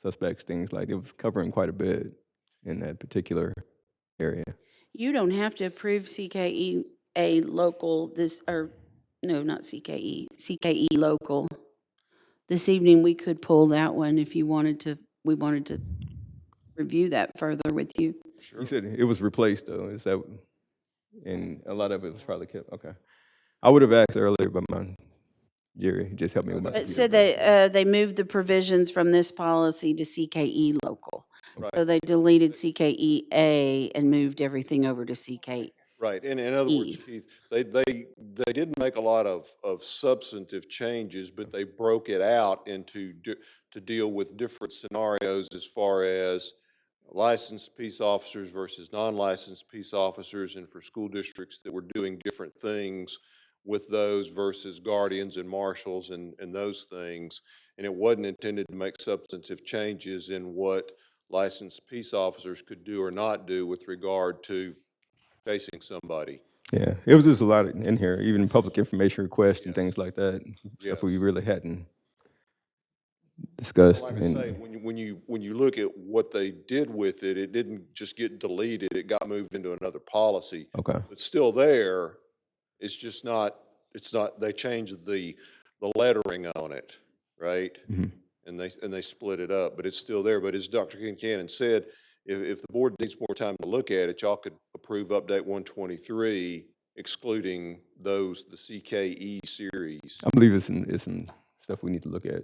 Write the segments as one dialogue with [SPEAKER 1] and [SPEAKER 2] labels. [SPEAKER 1] suspects things like it was covering quite a bit in that particular area.
[SPEAKER 2] You don't have to approve CKE a local this, or, no, not E, CKE, CKE local. This evening, we could pull that one if you wanted to, we wanted to review that further with you.
[SPEAKER 1] You said it was replaced though, is that, and a lot of it was probably kept, okay. I would have asked earlier, but my, Jerry just helped me with my.
[SPEAKER 2] But
[SPEAKER 1] computer.
[SPEAKER 2] so they, uh, they moved the provisions from this policy to CKE local. So they deleted CKE A and moved everything over to E. CK.
[SPEAKER 3] Right, and in other words,
[SPEAKER 2] E.
[SPEAKER 3] Keith, they, they, they didn't make a lot of, of substantive changes, but they broke it out into, di- to deal with different scenarios as far as licensed peace officers versus non-licensed peace officers, and for school districts that were doing different things with those versus guardians and marshals and, and those things. And it wasn't intended to make substantive changes in what licensed peace officers could do or not do with regard to chasing somebody.
[SPEAKER 1] Yeah, it was just a lot in here, even public information requests and
[SPEAKER 3] Yes.
[SPEAKER 1] things like that, stuff
[SPEAKER 3] Yes.
[SPEAKER 1] we really hadn't discussed.
[SPEAKER 3] Like I
[SPEAKER 1] and-
[SPEAKER 3] say, when you, when you, when you look at what they did with it, it didn't just get deleted, it got moved into another policy.
[SPEAKER 1] Okay,
[SPEAKER 3] It's still there, it's just not, it's not, they changed the, the lettering on it, right?
[SPEAKER 1] Mhm.
[SPEAKER 3] And they, and they split it up, but it's still there, but as Dr. Kincannon said, if, if the board needs more time to look at it, y'all could approve update one twenty-three excluding those, the CKE series.
[SPEAKER 1] I believe it's some, it's some stuff we need to look at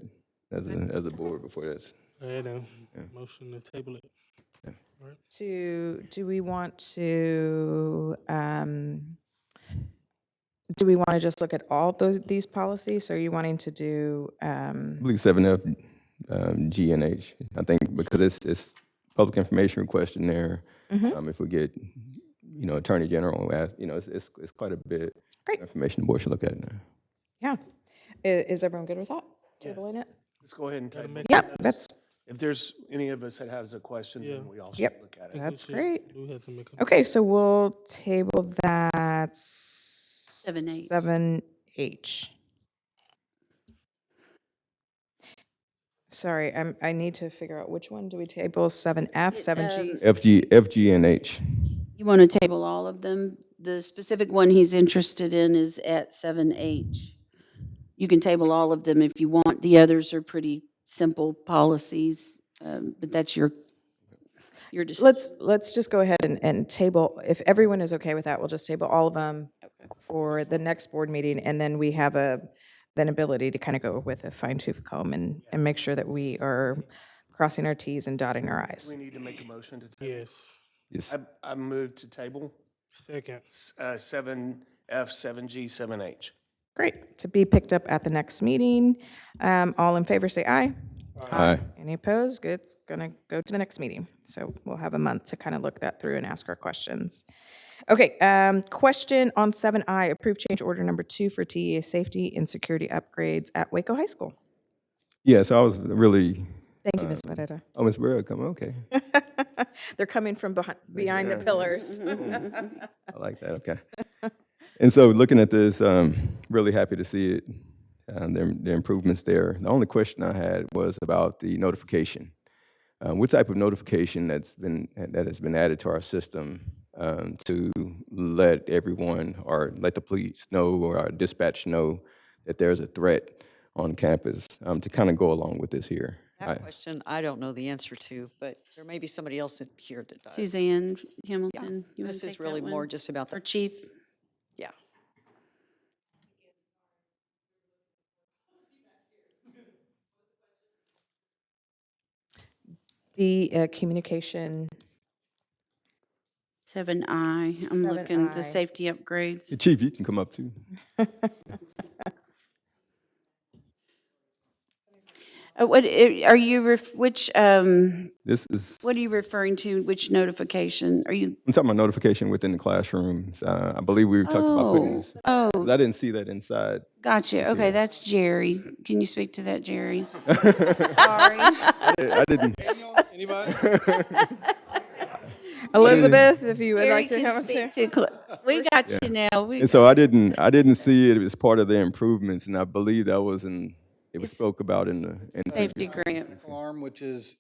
[SPEAKER 1] as a, as a board before that's,
[SPEAKER 4] Yeah, then, motion to table it.
[SPEAKER 5] To, do we want to, um, do we want to just look at all those, these policies? Or are you wanting to do,
[SPEAKER 1] I
[SPEAKER 5] um,
[SPEAKER 1] believe seven F, um, G and H. I think because it's, it's public information request in there. Um, if we get, you know, Attorney General, ask, you know, it's, it's, it's quite a bit.
[SPEAKER 5] Great.
[SPEAKER 1] Information the board should look at now.
[SPEAKER 5] yeah. I- is everyone good with that? Tabling it?
[SPEAKER 6] Let's go ahead and table. it.
[SPEAKER 5] Yep, that's,
[SPEAKER 6] If there's any of us that has a question, then we all should
[SPEAKER 5] Yep.
[SPEAKER 6] look at it.
[SPEAKER 5] that's great.
[SPEAKER 4] We have to make a
[SPEAKER 5] Okay, so we'll table that. Seven
[SPEAKER 2] H.
[SPEAKER 5] Seven H. Sorry, I'm, I need to figure out which one do we table, seven F, seven G?
[SPEAKER 1] FG, FG and H.
[SPEAKER 2] You want to table all of them? The specific one he's interested in is at seven H. You can table all of them if you want. The others are pretty simple policies, um, but that's your, your decision.
[SPEAKER 5] Let's, let's just go ahead and, and table, if everyone is okay with that, we'll just table all of them for the next board meeting, and then we have a, then ability to kind of go with a fine tooth comb and, and make sure that we are crossing our Ts and dotting our Is.
[SPEAKER 6] We need to make a motion to table.
[SPEAKER 4] Yes,
[SPEAKER 1] Yes,
[SPEAKER 6] I, I move to table,
[SPEAKER 4] second.
[SPEAKER 6] s- uh, seven F, seven G, seven H.
[SPEAKER 5] Great, to be picked up at the next meeting. Um, All in favor, say aye.
[SPEAKER 1] aye.
[SPEAKER 5] Any opposed? Good, it's gonna go to the next meeting. So we'll have a month to kind of look that through and ask our questions. Okay, um, question on seven I, approve change order number two for TEA safety and security upgrades at Waco High School.
[SPEAKER 1] Yeah, so I was really,
[SPEAKER 5] Thank you, Ms. Moreira.
[SPEAKER 1] oh, Ms. Burrow, come, okay.
[SPEAKER 5] Uh, They're coming from behind, behind the pillars.
[SPEAKER 1] I like that. Okay. and so, looking at this, um, really happy to see it. Um, the, the improvements there. The only question I had was about the notification. Uh, what type of notification that's been that has been added to our system um, to let everyone or let the police know or our dispatch know that there's a threat on campus um, to kind of go along with this here. I-
[SPEAKER 7] That question, I don't know the answer to, but there may be somebody else in here that does.
[SPEAKER 2] Suzanne Hamilton, you want
[SPEAKER 7] This
[SPEAKER 2] to take
[SPEAKER 7] is really
[SPEAKER 2] that
[SPEAKER 7] more
[SPEAKER 2] one?
[SPEAKER 7] just about
[SPEAKER 2] Or
[SPEAKER 7] the,
[SPEAKER 2] Chief,
[SPEAKER 7] yeah.
[SPEAKER 5] The uh, communication,
[SPEAKER 2] seven I, I'm looking, at
[SPEAKER 5] 7I.
[SPEAKER 2] the safety upgrades.
[SPEAKER 1] Chief, you can come up too.
[SPEAKER 2] Uh, What, i- are you, ref- which, um,
[SPEAKER 1] This is
[SPEAKER 2] what are you referring to? Which notification? Are you,
[SPEAKER 1] I'm talking about notification within the classrooms. Uh, I believe we talked about putting
[SPEAKER 2] oh,
[SPEAKER 1] this.
[SPEAKER 2] oh,
[SPEAKER 1] 'cause I didn't see that inside.
[SPEAKER 2] Gotcha. Okay, that's Jerry. Can you speak to that, Jerry? Sorry.
[SPEAKER 1] I didn't.
[SPEAKER 6] Anybody?
[SPEAKER 5] Elizabeth, if you would
[SPEAKER 2] Jerry
[SPEAKER 5] like to
[SPEAKER 2] can
[SPEAKER 5] come
[SPEAKER 2] speak to, Cla- we got you now. We,
[SPEAKER 1] And so I didn't. I didn't see it as part of the improvements, and I believe that was in. It was spoke about in the. In
[SPEAKER 2] safety grant.
[SPEAKER 8] alarm, which is